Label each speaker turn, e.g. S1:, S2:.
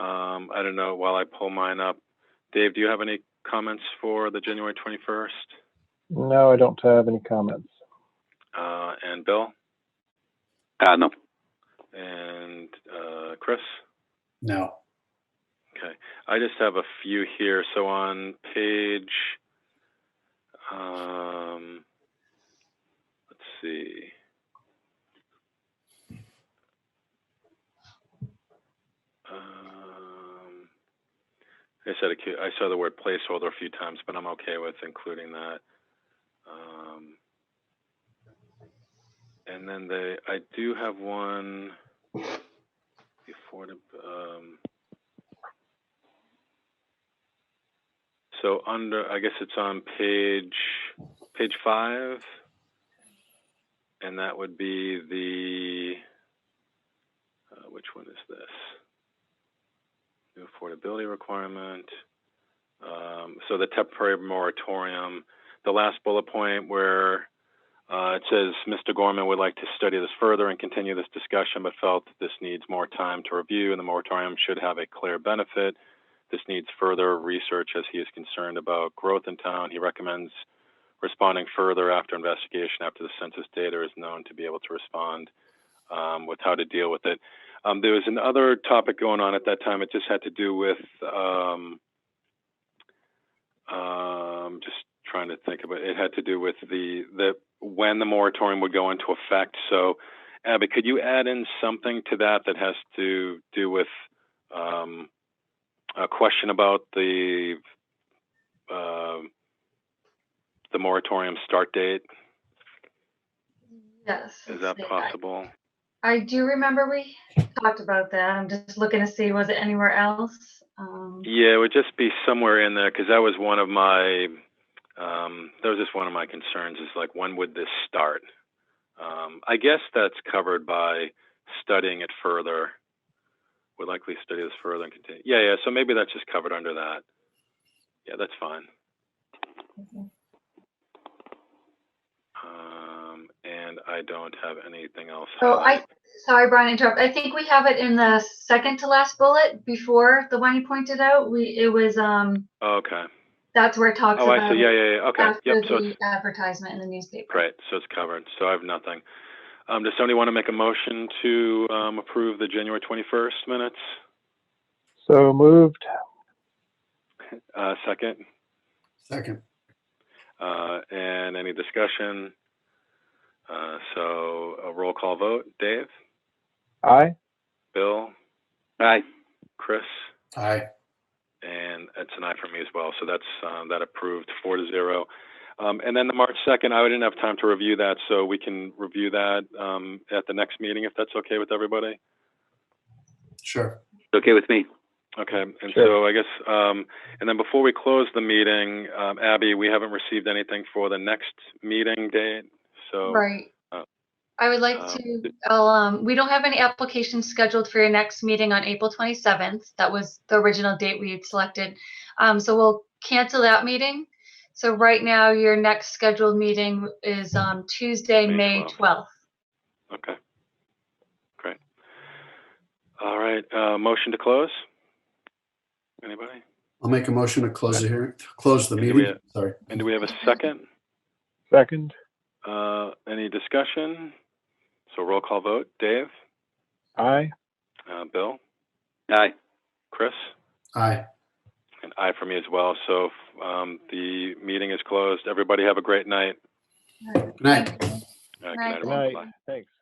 S1: Um, I don't know, while I pull mine up, Dave, do you have any comments for the January 21st?
S2: No, I don't have any comments.
S1: Uh, and Bill?
S3: Uh, no.
S1: And uh, Chris?
S4: No.
S1: I just have a few here. So on page, um, let's see. Um, I said a cu- I saw the word placeholder a few times, but I'm okay with including that. Um, and then the I do have one. The affordab- um, So under, I guess it's on page, page five. And that would be the, uh, which one is this? New affordability requirement. Um, so the temporary moratorium, the last bullet point where, uh, it says, Mr. Gorman would like to study this further and continue this discussion, but felt that this needs more time to review and the moratorium should have a clear benefit. This needs further research as he is concerned about growth in town. He recommends responding further after investigation, after the census data is known to be able to respond um, with how to deal with it. Um, there was another topic going on at that time. It just had to do with um, um, just trying to think about. It had to do with the the when the moratorium would go into effect. So, Abby, could you add in something to that that has to do with um, a question about the um the moratorium start date.
S5: Yes.
S1: Is
S5: let's
S1: that
S5: see. I-
S1: possible?
S5: I do remember we talked about that. I'm just looking to see, was it anywhere else? Um,
S1: Yeah, it would just be somewhere in there because that was one of my um, that was just one of my concerns is like when would this start? Um, I guess that's covered by studying it further. Would likely study this further and continue. Yeah, yeah. So maybe that's just covered under that. Yeah, that's fine.
S5: Mhm.
S1: Um, and I don't have anything else.
S5: So I,
S1: highlighted.
S5: sorry, Brian, interrupt. I think we have it in the second to last bullet before the one you pointed out. We, it was, um,
S1: Oh, Okay.
S5: that's where it talks
S1: Oh, I
S5: about
S1: see. Yeah, yeah, yeah. Okay.
S5: after
S1: Yep. So it's
S5: Um, the advertisement in the newspaper.
S1: Great, so it's covered, so I have nothing. Um, does somebody want to make a motion to, um, approve the January twenty-first minutes?
S2: So moved.
S1: Uh, second,
S4: Second.
S1: uh, and any discussion? Uh, so a roll call vote, Dave,
S2: Aye.
S1: Bill,
S3: Aye.
S1: Chris,
S4: Aye.
S1: and it's an aye for me as well, so that's, um, that approved four to zero. Um, and then the March second, I didn't have time to review that, so we can review that, um, at the next meeting, if that's okay with everybody?
S4: Sure.
S3: Okay with me.
S1: Okay, and
S2: Sure.
S1: so I guess, um, and then before we close the meeting, um, Abby, we haven't received anything for the next meeting date, so.
S5: Right.
S1: uh,
S5: I would like
S1: um,
S5: to, I'll, um, we don't have any applications scheduled for your next meeting on April twenty-seventh. That was the original date we had selected. Um, so we'll cancel that meeting. So right now, your next scheduled meeting is, um, Tuesday,
S1: May
S5: May twelfth.
S1: Okay. Great. All right, uh, motion to close? Anybody?
S4: I'll make a motion to close the hearing, to close the
S1: And do we-
S4: meeting. Sorry.
S1: And do we have a second?
S2: Second.
S1: Uh, any discussion? So roll call vote, Dave,
S2: Aye.
S1: uh, Bill,
S3: Aye.
S1: Chris,
S4: Aye.
S1: and I for me as well, so, um, the meeting is closed. Everybody have a great night.
S4: Good night.
S1: Uh, Good night,
S5: Night.
S2: Good
S1: everyone.
S2: night.
S1: Bye.
S2: Thanks.